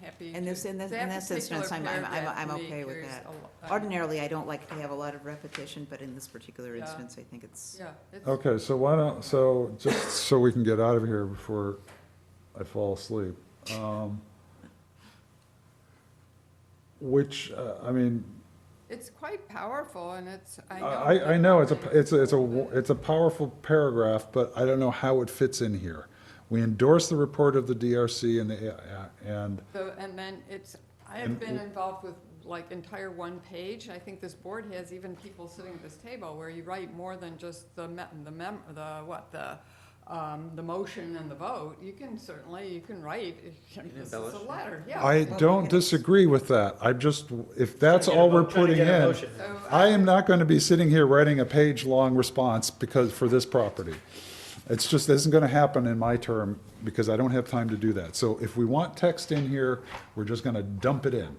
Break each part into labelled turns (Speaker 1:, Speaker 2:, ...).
Speaker 1: think.
Speaker 2: In this- in this- in this instance, I'm- I'm- I'm- I'm okay with that. Ordinarily, I don't like to have a lot of repetition, but in this particular
Speaker 1: Yeah.
Speaker 2: instance, I think it's,
Speaker 1: Yeah. it's-
Speaker 3: Okay, so why don't, so, just so we can get out of here before I fall asleep. um, Which, uh, I mean,
Speaker 1: It's quite powerful and it's, I know.
Speaker 3: I, I know, it's a, it's a, it's a, it's a powerful paragraph, but I don't know how it fits in here. We endorse the report of the DRC and the, uh, and,
Speaker 1: So, and then it's, I have
Speaker 3: And
Speaker 1: been
Speaker 3: w-
Speaker 1: involved with like entire one page, I think this board has even people sitting at this table where you write more than just the me, the mem, the, what, the, um, the motion and the vote, you can certainly, you can write, this is a
Speaker 4: embellish.
Speaker 1: letter, yeah.
Speaker 3: I don't disagree with that. I just, if that's all we're putting in,
Speaker 1: So,
Speaker 3: I am not going to be sitting here writing a page-long response because, for this property. It's just, this isn't going to happen in my term because I don't have time to do that. So if we want text in here, we're just going to dump it in.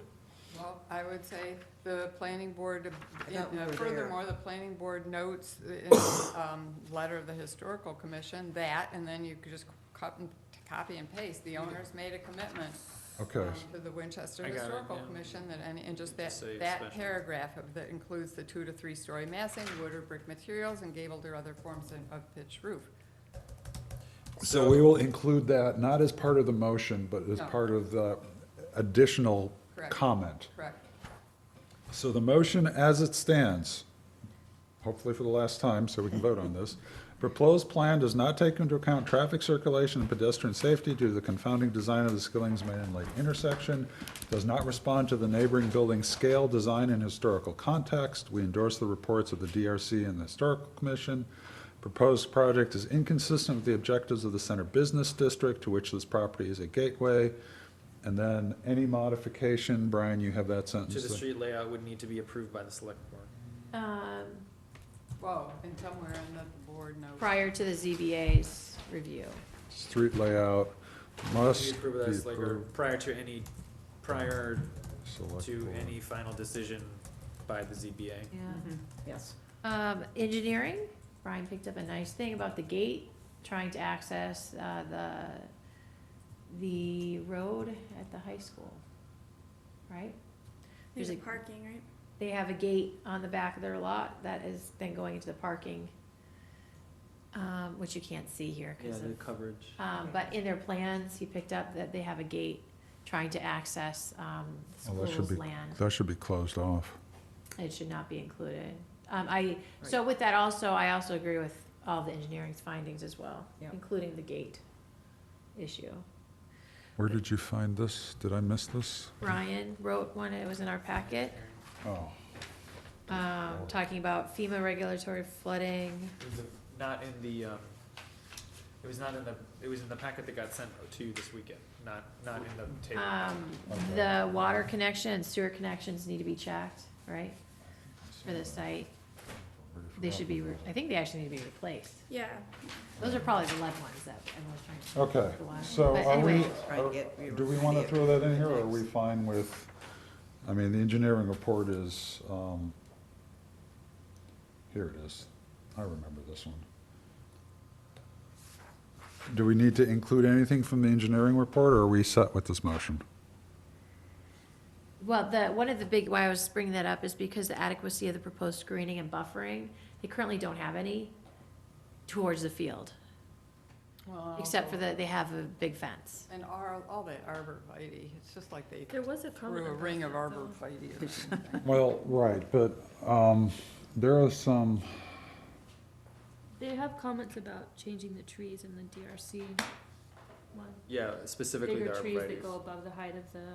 Speaker 1: Well, I would say the planning board, you
Speaker 2: thought we
Speaker 1: know,
Speaker 2: were there.
Speaker 1: furthermore, the planning board notes in the um, letter of the historical commission that, and then you could just cut and, copy and paste, the owners made a commitment
Speaker 3: Okay.
Speaker 1: um, to the Winchester
Speaker 4: I got it,
Speaker 1: Historical
Speaker 4: yeah.
Speaker 1: Commission that, any- and just that,
Speaker 4: Just say
Speaker 1: that
Speaker 4: special.
Speaker 1: paragraph of, that includes the two to three-story massing, wood or brick materials, and gabled or other forms of- of pitched roof.
Speaker 3: So we will include that, not as part of the motion, but as
Speaker 1: No.
Speaker 3: part of the additional
Speaker 1: Correct.
Speaker 3: comment.
Speaker 1: Correct.
Speaker 3: So the motion as it stands, hopefully for the last time, so we can vote on this. Proposed plan does not take into account traffic circulation and pedestrian safety due to the confounding design of the Skilling's Main and Lake intersection. Does not respond to the neighboring building's scale, design, and historical context. We endorse the reports of the DRC and the Historical Commission. Proposed project is inconsistent with the objectives of the Center Business District, to which this property is a gateway. And then any modification, Brian, you have that sentence
Speaker 4: To the
Speaker 3: there.
Speaker 4: street layout would need to be approved by the select board.
Speaker 5: Um,
Speaker 1: Whoa, and somewhere in the board notes.
Speaker 5: prior to the ZBA's review.
Speaker 3: Street layout must
Speaker 4: Be
Speaker 3: be
Speaker 4: approved by the select, or
Speaker 3: approved.
Speaker 4: prior to any, prior
Speaker 3: select
Speaker 4: to
Speaker 3: board.
Speaker 4: any final decision by the ZBA.
Speaker 1: Mm-hmm.
Speaker 2: Mhm. yes.
Speaker 5: Um, engineering, Brian picked up a nice thing about the gate, trying to access, uh, the, the road at the high school, right?
Speaker 6: There's
Speaker 5: There's
Speaker 6: a
Speaker 5: a-
Speaker 6: parking, right?
Speaker 5: They have a gate on the back of their lot that is then going into the parking, um, which you can't see here because of
Speaker 4: coverage.
Speaker 5: Um, but in their plans, he picked up that they have a gate trying to access, um, the
Speaker 3: Well, that should
Speaker 5: school's
Speaker 3: be,
Speaker 5: land.
Speaker 3: that should be closed off.
Speaker 5: It should not be included. Um, I, so with that also, I also agree with all the engineering's findings as well,
Speaker 2: Yeah.
Speaker 5: including the gate issue.
Speaker 3: Where did you find this? Did I miss this?
Speaker 5: Ryan wrote one, it was in our packet,
Speaker 3: Oh,
Speaker 5: um, talking about FEMA regulatory flooding.
Speaker 4: Not in the, um, it was not in the, it was in the packet that got sent to you this weekend, not, not in the table.
Speaker 7: Ah.
Speaker 5: Um, the water connection and sewer connections need to be checked, right, for the site. They should be, re- I think they actually need to be replaced.
Speaker 6: Yeah.
Speaker 5: Those are probably the lead ones that everyone's trying to.
Speaker 3: Okay,
Speaker 5: the water.
Speaker 3: so
Speaker 5: But
Speaker 3: are we,
Speaker 5: anyway,
Speaker 2: Try to get-
Speaker 3: are- Oh, do we want to throw that in here, or are we
Speaker 2: Next.
Speaker 3: fine with, I mean, the engineering report is, um, here it is. I remember this one. Do we need to include anything from the engineering report, or are we set with this motion?
Speaker 5: Well, the, one of the big, why I was bringing that up is because the adequacy of the proposed screening and buffering, they currently don't have any towards the field,
Speaker 1: Well,
Speaker 5: except for the, they have a big fence.
Speaker 1: And ar, all that arborvitae, it's just like they
Speaker 6: There was a comment.
Speaker 1: threw a
Speaker 6: about
Speaker 1: ring of
Speaker 6: that, though.
Speaker 1: arborvitae or something.
Speaker 3: Well, right, but um, there are some,
Speaker 7: They have comments about changing the trees in the DRC one.
Speaker 4: Yeah, specifically the
Speaker 7: Bigger trees
Speaker 4: arborvitae.
Speaker 7: that go above the height of the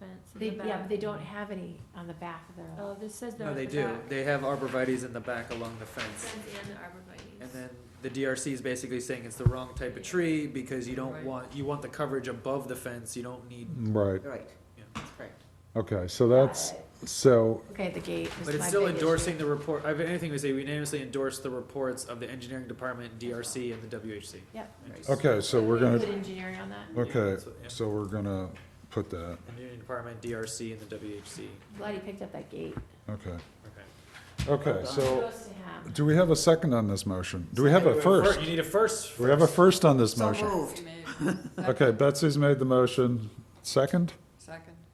Speaker 7: fence
Speaker 5: They,
Speaker 7: in the back.
Speaker 5: yeah, but they don't have any on the back of their
Speaker 7: Oh,
Speaker 5: lot.
Speaker 7: this says they're
Speaker 4: No,
Speaker 7: at the
Speaker 4: they
Speaker 7: back.
Speaker 4: do, they have arborvitaes in the back along the fence.
Speaker 7: Fence and the arborvitae's.
Speaker 4: And then the DRC is basically saying it's the wrong type of tree because you don't
Speaker 1: Right.
Speaker 4: want, you want the coverage above the fence, you don't need,
Speaker 3: right,
Speaker 2: Right,
Speaker 4: Yeah.
Speaker 2: that's correct.
Speaker 3: okay, so that's, so,
Speaker 5: Okay, the gate was my big
Speaker 4: but it's still
Speaker 5: issue.
Speaker 4: endorsing the report, I have anything we say, we unanimously endorse the reports of the engineering department, DRC, and the WHC.
Speaker 5: Yep.
Speaker 4: And just-
Speaker 3: okay, so we're
Speaker 5: Put
Speaker 3: gonna,
Speaker 5: engineering on that.
Speaker 3: okay, so we're gonna put that,
Speaker 4: Engineering department, DRC, and the WHC,
Speaker 5: Glad he picked up that gate.
Speaker 3: okay.
Speaker 4: okay.
Speaker 3: Okay, so,
Speaker 5: Goes to him.
Speaker 3: do we have a second on this motion? Do we have a
Speaker 4: Wait, fir-
Speaker 3: first?
Speaker 4: You need a first.
Speaker 3: Do we have a first on this
Speaker 2: So
Speaker 3: motion?
Speaker 2: moved.
Speaker 1: She made-
Speaker 3: Okay, Betsy's made the motion, second?
Speaker 1: Second. second?